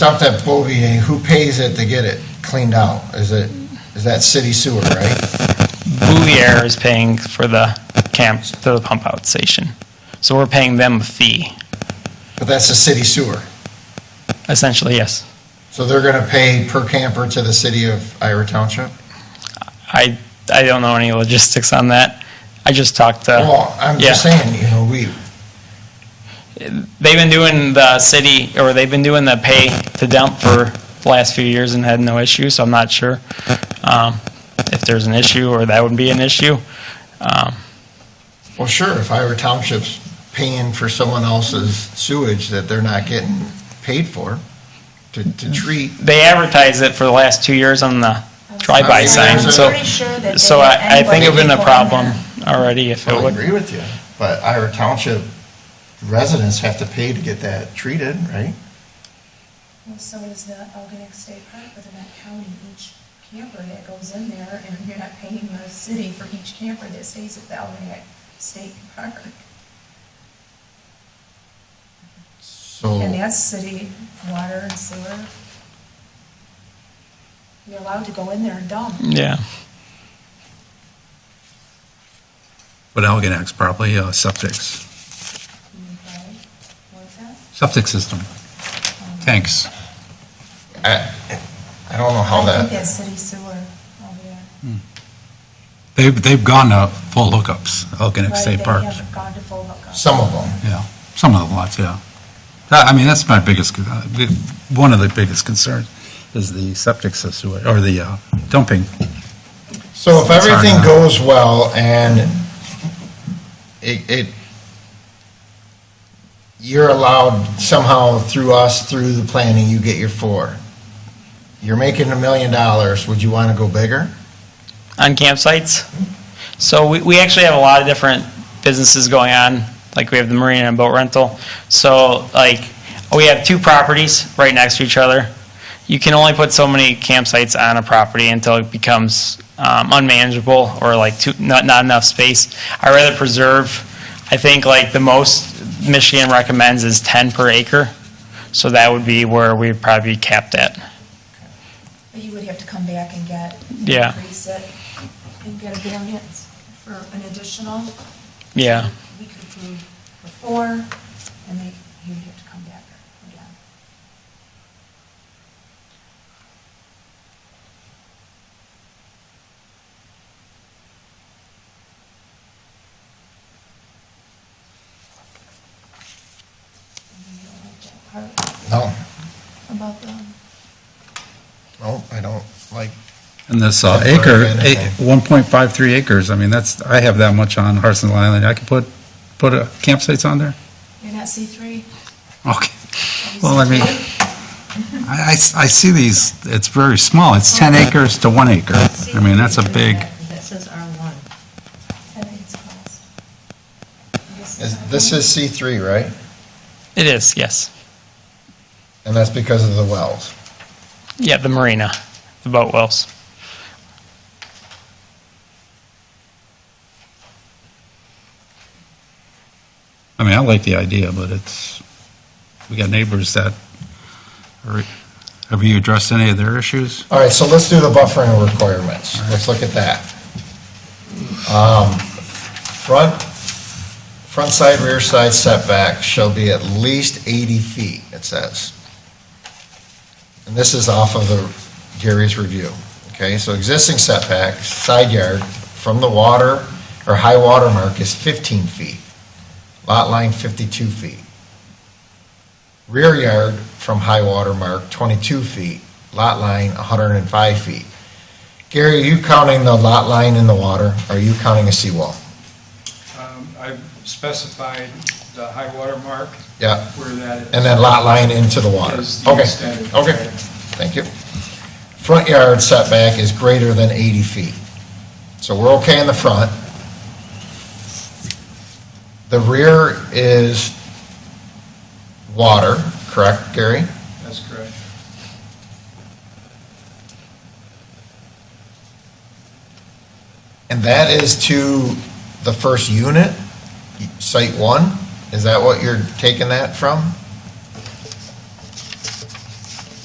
dumped at Bovier, who pays it to get it cleaned out? Is it, is that city sewer, right? Bouvier is paying for the camp, for the pump out station. So we're paying them a fee, But that's the city sewer. essentially, yes. So they're gonna pay per camper to the city of Ira Township? I, I don't know any logistics on that. I just talked to, Well, I'm just Yeah. saying, you know, we, they've been doing the city, or they've been doing the pay to dump for the last few years and had no issue, so I'm not sure um, if there's an issue or that would be an issue. Um, well, sure, if Ira Township's paying for someone else's sewage that they're not getting paid for to, to treat, They advertised it for the last two years on the drive-by I'm sign, so, pretty so I, I think it would've been a problem already if it I would. agree with you. But Ira Township residents have to pay to get that treated, right? Well, so is the Algonac State Park within that county, each camper that goes in there, and you're not paying the city for each camper that stays at the Algonac State Park. And So, that's city water and sewer. You're allowed to go in there and dump. Yeah, But Algonac's probably uh, septics, Okay. What's that? septic system, tanks. I, I don't know how I think that, that's city sewer over there. They've, they've gone to full hookups, Algonac Right, State they Park, haven't gone to full hookup. some of them. yeah, some of the lots, yeah. That- I mean, that's my biggest, con- uh, the- one of the biggest concerns is the septic system, or the uh, dumping. So if It's hard everything enough. goes well and it, it, you're allowed somehow through us, through the planning, you get your four. You're making a million dollars, would you want to go bigger? on campsites. So we, we actually have a lot of different businesses going on, like we have the marina and boat rental. So like, we have two properties right next to each other. You can only put so many campsites on a property until it becomes um, unmanageable or like too, not, not enough space. I rather preserve, I think like the most Michigan recommends is 10 per acre. So that would be where we'd probably cap that. But you would have to come back and get. Yeah. Increase it and get a variance for an additional. Yeah. We could approve for four, and they, you would have to come back again. And you don't like that part No, About um, the. no, I don't like, And this uh, That's acre, very a- 1.53 acres, I mean, that's, I have that much on Hartson Island, I could put, put uh, campsites on there? You're not C E three? Okay. Well, I mean, I, I s- I see these, it's very small, it's 10 acres to 1 acre. I mean, that's a big, That says R1. I think it's closed. is- this is C three, right? It is, yes. And that's because of the wells. Yeah, the marina, the boat wells. I mean, I like the idea, but it's, we got neighbors that, are- have you addressed any of their issues? All right, so let's do the buffering requirements. Let's look at that. Um, Front, front side, rear side setback shall be at least 80 feet, it says. And this is off of the Gary's review, okay? So existing setback, side yard from the water or high water mark is 15 feet. Lot line 52 feet. Rear yard from high water mark 22 feet lot line 105 feet. Gary, are you counting the lot line in the water? Are you counting a seawall? Um, I specified the high water mark Yeah, where that is. and then lot line into the water? Is the Okay, extent of- okay, thank you. Front yard setback is greater than 80 feet. So we're okay in the front. The rear is water, correct, Gary? That's correct. And that is to the first unit, site one? Is that what you're taking that from?